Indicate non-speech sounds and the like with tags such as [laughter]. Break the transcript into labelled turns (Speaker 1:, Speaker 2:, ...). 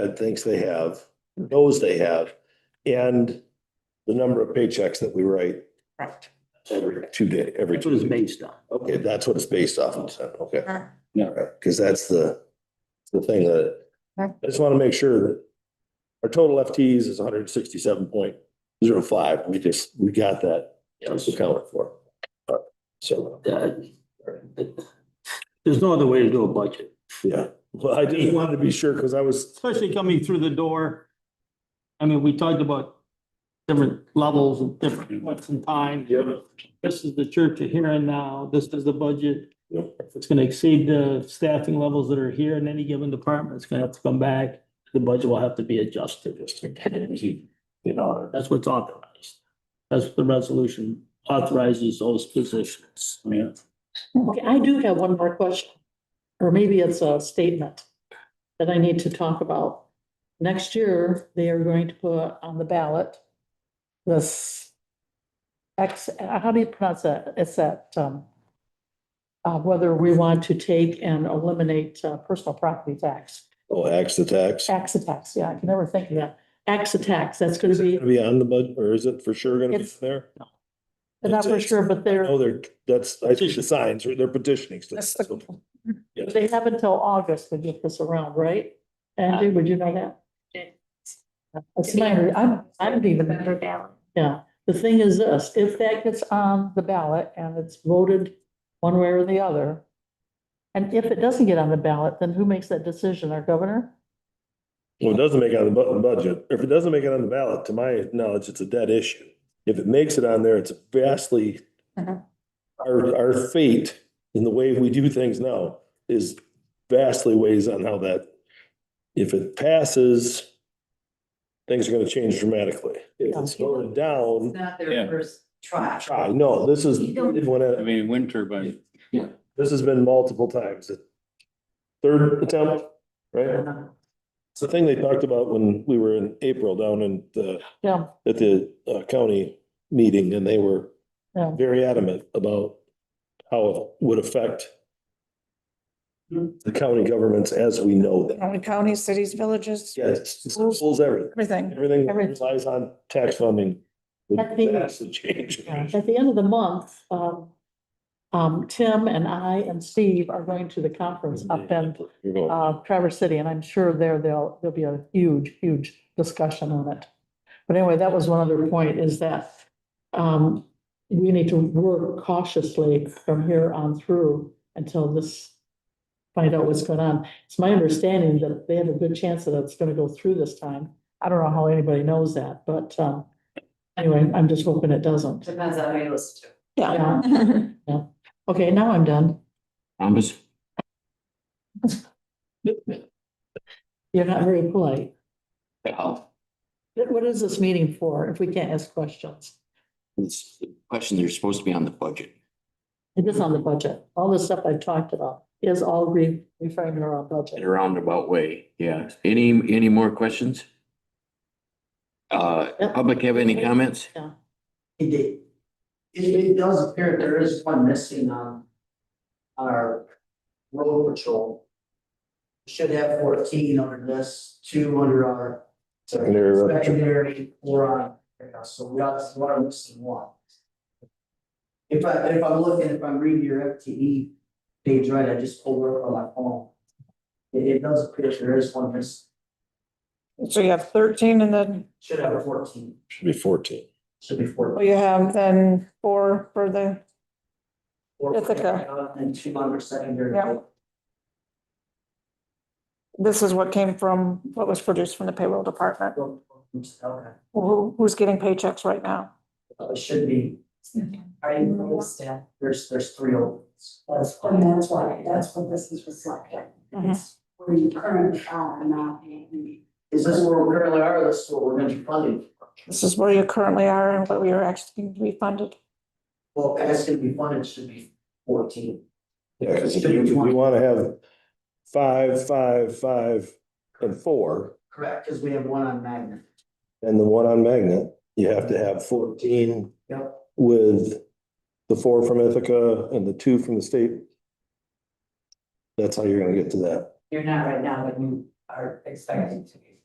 Speaker 1: that thinks they have, knows they have, and the number of paychecks that we write
Speaker 2: Correct.
Speaker 1: every two day, every
Speaker 3: That's
Speaker 1: two
Speaker 3: what it's
Speaker 1: days.
Speaker 3: based on.
Speaker 1: Okay, that's what it's based off of, then, okay.
Speaker 3: Yeah.
Speaker 1: All right, Cause that's the, the thing that,
Speaker 2: Okay.
Speaker 1: I just wanna make sure that our total FTEs is hundred and sixty-seven point zero five. We just, we got that, just accounted for. All right, So,
Speaker 3: Uh, There's no other way to do a budget,
Speaker 1: yeah, well, I just wanted to be sure, cause I was,
Speaker 3: especially coming through the door. I mean, we talked about different levels and different points in time.
Speaker 1: Yep.
Speaker 3: This is the church of here and now, this is the budget.
Speaker 1: Yep.
Speaker 3: If it's gonna exceed the staffing levels that are here in any given department, it's gonna have to come back. The budget will have to be adjusted.
Speaker 1: you know,
Speaker 3: That's what's authorized. That's what the resolution authorizes those positions.
Speaker 1: Yeah.
Speaker 4: Okay, I do have one more question, or maybe it's a statement that I need to talk about. Next year, they are going to put on the ballot this X, how do you pronounce that? It's that, um, uh, whether we want to take and eliminate uh, personal property tax,
Speaker 1: oh, axe the tax.
Speaker 4: tax tax, yeah, I can never think of that. Tax tax, that's gonna be,
Speaker 1: Gonna be on the budget, or is it for sure gonna be
Speaker 4: It's-
Speaker 1: there?
Speaker 4: I'm not for sure, but they're,
Speaker 1: No, Oh, they're, that's, I think the signs, they're petitioning. still.
Speaker 4: That's the-
Speaker 1: Yeah.
Speaker 4: they have until August to get this around, right? Andy, would you know that? It's my, I'm, I'm even, yeah, the thing is this, if that gets on the ballot and it's voted one way or the other. And if it doesn't get on the ballot, then who makes that decision, our governor?
Speaker 1: Well, it doesn't make it on the bu- budget. If it doesn't make it on the ballot, to my knowledge, it's a dead issue. If it makes it on there, it's vastly
Speaker 4: Mhm.
Speaker 1: our, our fate in the way we do things now is vastly weighs on how that, if it passes, things are gonna change dramatically. If it's voted down,
Speaker 5: not
Speaker 6: Yeah.
Speaker 5: their first try.
Speaker 1: I know, this is,
Speaker 5: You don't-
Speaker 1: when it-
Speaker 6: I mean, wind turbine,
Speaker 1: This has been multiple times. The Third attempt, right? It's the thing they talked about when we were in April down in the,
Speaker 4: Yeah,
Speaker 1: at the uh, county meeting and they were
Speaker 4: Yeah.
Speaker 1: very adamant about how it would affect the county governments as we know them.
Speaker 2: County, counties, cities, villages,
Speaker 1: Yes, it pulls everything.
Speaker 2: everything.
Speaker 1: Everything that
Speaker 4: Everything.
Speaker 1: relies on tax funding.
Speaker 4: That'd be-
Speaker 1: That's the change.
Speaker 4: at the end of the month, um, um, Tim and I and Steve are going to the conference up in
Speaker 1: You're going,
Speaker 4: uh, Traverse City, and I'm sure there, there'll, there'll be a huge, huge discussion on it. But anyway, that was one other point, is that, um, we need to work cautiously from here on through until this, find out what's going on. It's my understanding that they have a good chance that it's gonna go through this time. I don't know how anybody knows that, but, um, anyway, I'm just hoping it doesn't.
Speaker 5: Depends on who you listen
Speaker 4: Yeah,
Speaker 5: to.
Speaker 4: okay, now I'm done.
Speaker 3: Thomas?
Speaker 4: You're not very polite.
Speaker 7: Well,
Speaker 4: What what is this meeting for if we can't ask questions?
Speaker 7: it's the question that's supposed to be on the budget.
Speaker 4: It is on the budget. All the stuff I talked about is all re- referring to our
Speaker 7: In
Speaker 4: budget.
Speaker 7: a roundabout way, yeah. Any, any more questions? Uh,
Speaker 4: Yep.
Speaker 7: public have any comments?
Speaker 8: It did. It, it does appear there is one missing on our road patrol. Should have fourteen under this, two under our
Speaker 1: Secondary road patrol.
Speaker 8: secondary, or on, yeah, so we got, we are missing one. If I, if I'm looking, if I'm reading your FTE page right, I just pulled it up on my phone. It, it does appear there is one miss,
Speaker 2: [laughs] So you have thirteen and then,
Speaker 8: should have a fourteen,
Speaker 1: Should be fourteen.
Speaker 8: should be four.
Speaker 2: well, you have then four for the,
Speaker 8: four-
Speaker 2: Ithaca.
Speaker 8: And two under secondary.
Speaker 2: Yeah. this is what came from, what was produced from the payroll department.
Speaker 8: Okay.
Speaker 2: Who, who's getting paychecks right now?
Speaker 8: Uh, It should be, I, there's, there's three openings.
Speaker 5: That's, and that's why, that's what this is reflecting. It's where you currently are not paying.
Speaker 8: Is this where we currently are, or this is what we're gonna be funding?
Speaker 2: This is where you currently are and what we are asking to be funded.
Speaker 8: Well, as to be funded, it should be fourteen.
Speaker 1: Yeah, cause if you, if you wanna have five, five, five and four,
Speaker 8: Correct, because we have one on magnet.
Speaker 1: and the one on Magnet, you have to have fourteen.
Speaker 8: Yep.
Speaker 1: With the four from Ithaca and the two from the state. That's how you're gonna get to that.
Speaker 5: You're not right now, but you
Speaker 8: are expected to be.